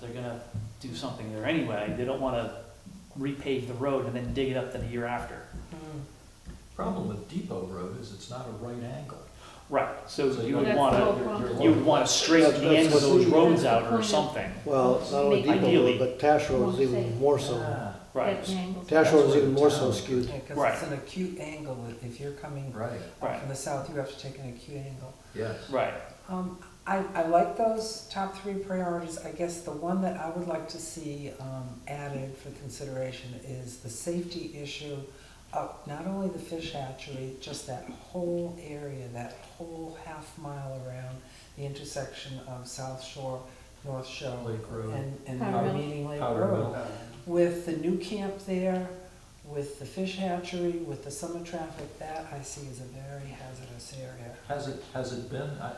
they're gonna do something there anyway. They don't wanna repave the road and then dig it up the year after. Problem with Depot Road is it's not a right angle. Right, so So you you- would That's the whole wanna, problem. you would wanna straighten the ends of those roads out or That's the point. something, Well, it's not only Maybe. Depot Road, but Tash Road is even more so. Ah, right? Uh, Tash Road is even more so skewed. Yeah, because Right. it's an acute angle. If- If you're coming Right, Right. from the south, you have to take an acute angle. yes. Right, Um, I, I like those top three priorities. I guess the one that I would like to see um, added for consideration is the safety issue of not only the fish hatchery, just that whole area, that whole half mile around the intersection of South Shore, North Shore, Lake Road, and, and Powder Mill. Meeting Lake Powder Road Mill. with the new camp there, with the fish hatchery, with the summer traffic, that I see is a very hazardous area. Has it, has it been, I. I-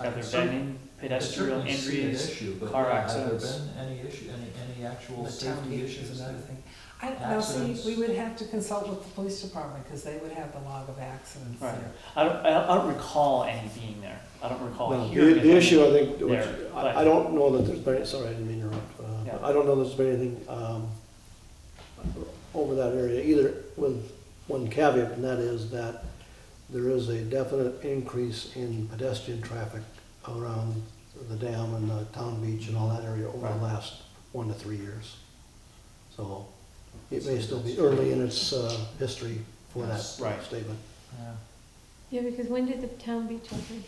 I have can there cer- been I can pedestrian certainly see an injuries? issue, but car yeah, Have accidents? there been any issue, any, any actual The town safety beach is issues? another there? thing. I, now see, Accidents. we would have to consult with the police department, because they would have the log of accidents Right. there. I don't, I don't- I don't recall any being there, Oh, I don't recall No, hearing. The, the of issue, I any. think, which, there, but- I, I don't know that there's been, sorry, I didn't mean to interrupt. uh, Yeah. I don't know there's been anything, um, over that area either, with one caveat, and that is that there is a definite increase in pedestrian traffic around the dam and the town beach and all that area over Right. the last one to three years. So it So may still be that's- early in its, uh, history for that Yes, right. statement. Yeah. Yeah, because when did the town beach open?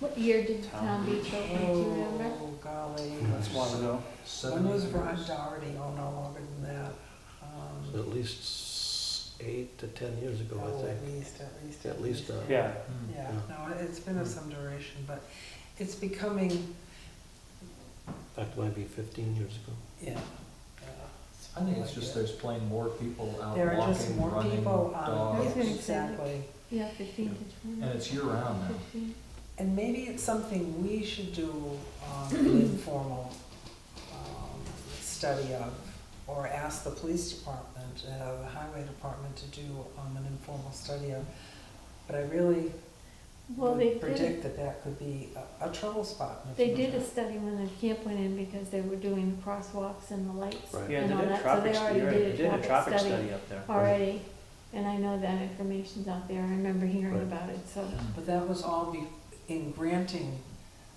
What year did the Town town beach open, do you remember? Oh, golly. That's a while ago. When Seventy was years. Ron Doherty? Oh, no longer than that. Um, At least s- eight to 10 years ago, I Oh, think. at least, at least. At least, uh, Yeah, Hmm. Yeah, Yeah. no, it's been of some duration, but it's becoming, In fact, it might be 15 years ago. yeah. yeah, Hmm. I think it's uh, just there's plain more people out There are just walking, more running, people um, on, Yes, dogs. yes. exactly. Yeah, fifteen to twenty. And it's year round now. 15. And maybe it's something we should do um, an informal um, study of, or ask the police department, uh, the highway department to do um, an informal study of. But I really Well, they would did, predict that that could be a- a trouble spot. in the they did a future. study when the camp went in because they were doing the crosswalks and the lights. Right. yeah, And they all did a that, so traffic, they study. already right, did a they did a traffic traffic study. study up there. Already, and I know that information's out there, I remember hearing Right. about it, so, Hmm. But that was all be, in granting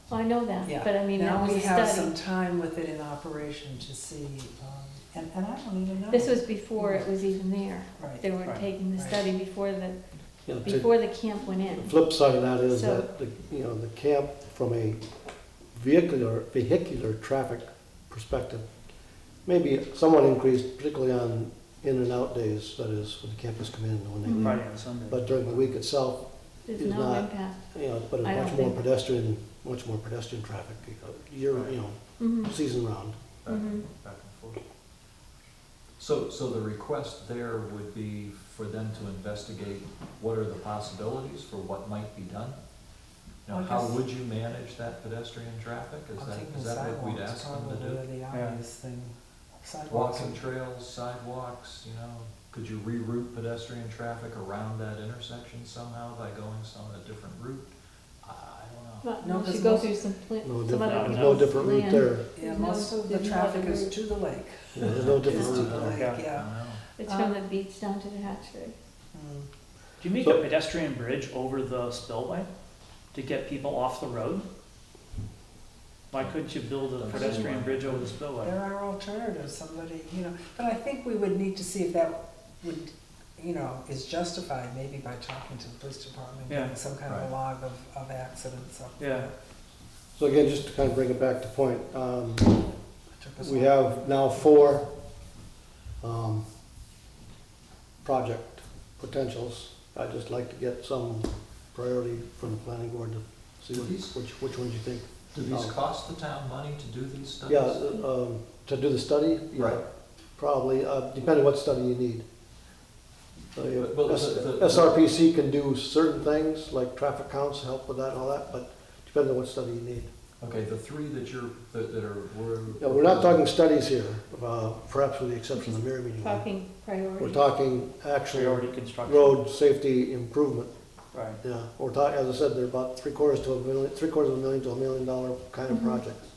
well, I know that, Yeah. but I mean, that Now was we a have study. some time with it in operation to see, um, and, and I don't even know. This was before it was even there, Right, they were Right. taking the Right. study before the, You know, to- before the camp went in. The flip side of that is So- that, the you know, the camp, from a vehicular, vehicular traffic perspective, maybe somewhat increased, particularly on in and out days, that is, when the campers come in and Mm-hmm. when they leave. Friday and Sunday. But during the week itself, There's is no not- impact. you know, but it's I don't much more think- pedestrian, much more pedestrian traffic, you know, year, you know, Mm-hmm. season round. Back and Mhm. back and forth. So, so the request there would be for them to investigate what are the possibilities for what might be done? Now, Well, I how guess- would you manage that pedestrian traffic? Is I'm that, thinking is that what we'd sidewalks ask them probably to are the Yeah. obvious thing. do? Sidewalks, Walking trails, sidewalks, you know, could you reroute pedestrian traffic around that intersection somehow by going some, a different route? I I don't know. But No, no, she because goes most- through some pla- No some other different- different, no people's different route land. there. yeah, There's no- most of the there's no traffic other is route. to the lake. Yeah, There's no It's different to route the there. lake, Yeah. I yeah. don't know. It's from the Um, beach down to the hatchery. Mm. Do you make a So- pedestrian bridge over the spillway to get people off the road? Why couldn't you build a Doesn't seem pedestrian like- bridge over the spillway? There are alternatives, somebody, you know, but I think we would need to see if that would, you know, is justified maybe by talking to the police department, Yeah. getting some kind of Right. log of, of accidents up Yeah. there. So again, just to kind of bring it back to point, um, Took us We a- have now four um, project potentials. I'd just like to get some priority from the planning board to see what- Please. which, which ones you think. Do these Oh. cost the town money to do these studies? Yeah, um, to do the study? yeah, Right. Probably, uh, depending what study you need. So you- But- but S- the- the- SRPC can do certain things, like traffic counts, help with that and all that, but depending on what study you need. Okay, the three that you're, that that are, we're. Yeah, we're not talking studies here, uh, perhaps with the exception of the mirror meeting. one. Talking priority. Mm-hmm. We're talking actual Priority construction. road safety improvement, Right. yeah. We're talking, as I said, they're about three quarters to a million, three quarters of a million to a million dollar kind of Mhm. project.